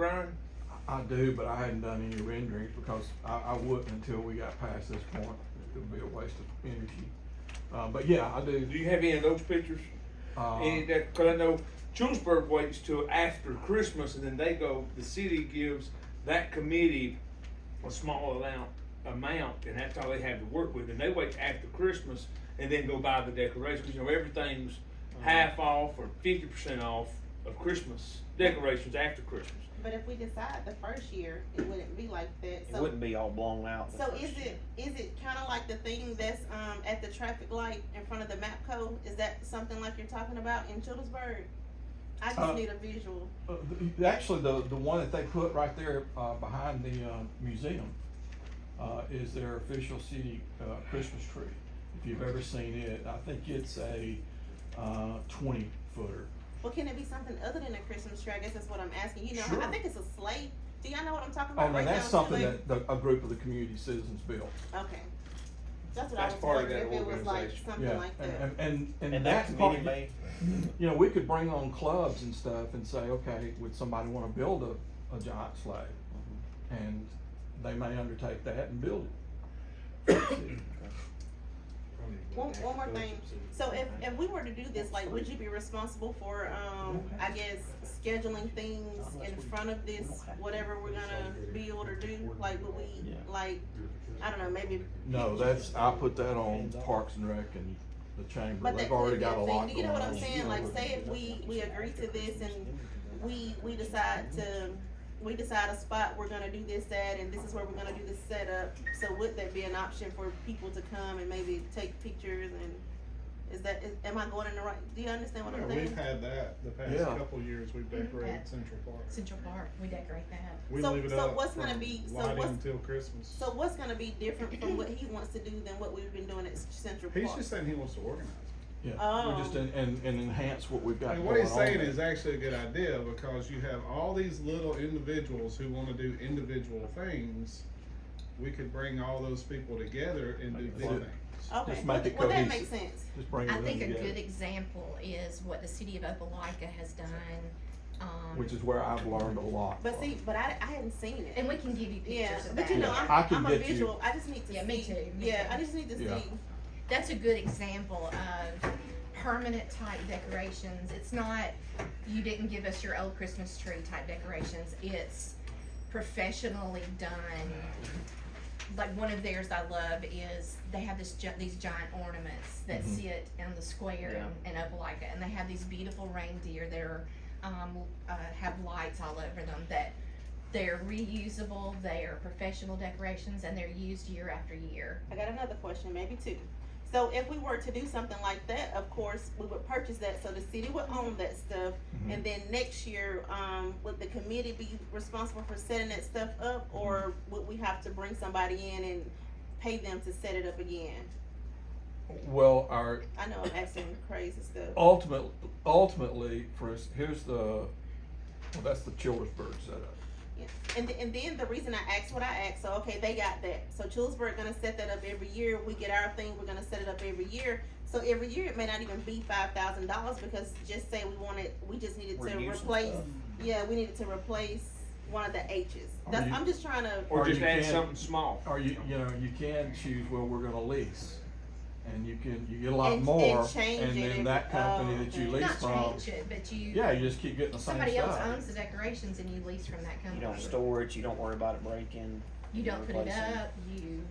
Brian? I do, but I hadn't done any renderings because I, I wouldn't until we got past this point. It would be a waste of energy. Uh, but yeah, I do. Do you have any of those pictures? Uh, Any of that, cause I know Julesburg waits till after Christmas and then they go, the city gives that committee a small amount, amount, and that's all they have to work with, and they wait after Christmas and then go buy the decorations, you know, everything's Uh-huh. half off or fifty percent off of Christmas decorations after Christmas. But if we decide the first year, it wouldn't be like that, It so, wouldn't be all blown out. the so first is year. it, is it kinda like the thing that's, um, at the traffic light in front of the MAPCO? Is that something like you're talking about in Childersburg? I Uh, just need a visual, uh, the- Actually, the, the one that they put right there, uh, behind the, uh, museum, uh, is their official city, uh, Christmas tree. If you've ever seen it, I think it's a, uh, twenty footer. well, can it be something other than a Christmas tree, I guess that's what I'm asking, you know, Sure. I think it's a sleigh, do y'all know what I'm talking Oh, about no, right now? that's something Chile? that, the- a group of the community citizens built. Okay, that's what I That's was part of wondering, if that it was like organization. something Yeah, like and, that, and- and, and And that that's part, committee may, you know, we could bring on clubs and stuff and say, okay, would somebody wanna build a, a giant sleigh? Mm-hmm. And they may undertake that and build it. one, one more thing, So if, if we were to do this, like, would you be responsible for, um, I guess, scheduling things in front of this, whatever we're gonna build or do? Like, would we, like, I don't know, maybe, No, that's, I put that on Parks and Rec and the chamber, but that they've could already be a got a lot thing, going on. you know what I'm saying? Like, say if we, we agree to this and we, we decide to, we decide a spot we're gonna do this at, and this is where we're gonna do this setup. So would that be an option for people to come and maybe take pictures and, is that, is, am I going in the right, do you understand what I'm Yeah, saying? We've had that the past Yeah. couple years, we've decorated Central Park. Central Park, we decorate that. We So- leave it so up what's gonna from be- so lighting what's- till Christmas. So what's gonna be different from what he wants to do than what we've been doing at Central He's Park? just saying he wants to organize. it. Yeah, Oh. we just, en- and, and enhance what we've got And going on. what he's saying there. is actually a good idea because you have all these little individuals who wanna do individual things. We could bring all those people together and do Make it big work. things. Okay, just well, make it well, that cohesive. makes sense. Just bring I it in think a good together, example is what the city of Opelika has done, um, which is where I've learned a lot. But from. see, but I, I hadn't seen it. and we can give you Yeah, pictures of but you know, that. I I'm, can I'm a get you- visual, I just need to see. Yeah, me too, me Yeah, too. I just need to see. Yeah. That's a good example of permanent type decorations. It's not, you didn't give us your old Christmas tree type decorations. It's professionally done. Like one of theirs I love is they have this, gi- these giant ornaments that Mhm. sit in the square in, in Opelika. And they have these beautiful reindeer that are, um, uh, have lights all over them that they're reusable, they are professional decorations, and they're used year after year. I got another question, maybe two. So if we were to do something like that, of course, we would purchase that, so the city would own that stuff. Mm-hmm. And then next year, um, would the committee be responsible for setting that stuff up, or would we have to bring somebody in and pay them to set it up again? Well, our, I know I'm asking crazy stuff. ultimate, ultimately, for us, here's the, well, that's the Childersburg setup. And, th- and then the reason I asked what I asked, so okay, they got that. So Chillsburg gonna set that up every year. We get our thing, we're gonna set it up every year. So every year it may not even be five thousand dollars because just say we wanted, we just needed to Reuse and replace. stuff. Yeah, we needed to replace one of the H's. Or That's, you- I'm just trying to. Or Or just you add can- something small. Or you, you know, you can choose, well, we're gonna lease, and you can, you get a lot And- more, and change and it then every- that company oh, that you okay. lease from, Not change it, but you. yeah, you just keep getting the same Somebody else stuff. owns the decorations and you lease from that You company. don't store it, you don't worry about it breaking. You don't put it replace it. up, you,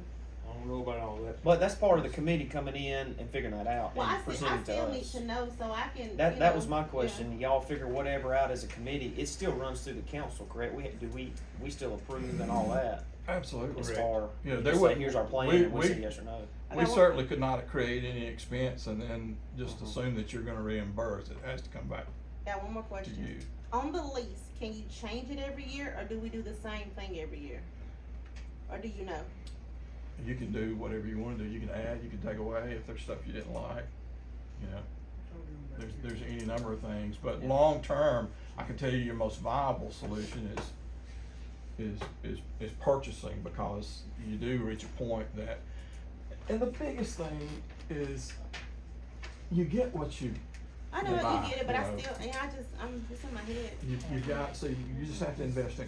I don't know about all that. But that's part of the committee coming in and figuring that out Well, I, and still, I presenting to still need us. to know so I can. you That, that know, was my yeah. question. Y'all figure whatever out as a committee, it still runs through the council, correct? We, do we, we still approve and all that as Absolutely. far, Yeah, you they just say, wouldn't- here's our plan we- and we we- say yes or no. Okay, We well, certainly could not create any expense and then just Mhm. assume that you're gonna reimburse, it has to come back Got one more to question. you. On the lease, can you change it every year, or do we do the same thing every year? Or do you know? You can do whatever you wanna do, you can add, you can take away if there's stuff you didn't like, you know? There's, there's any number of things, but long-term, I can tell you your most viable solution is, is, is, is purchasing, because you do reach a point that, and the biggest thing is, you get what you I know you buy, get it, but you I know. still, yeah, I just, I'm, it's in my head. You, you got, see, you just have to invest in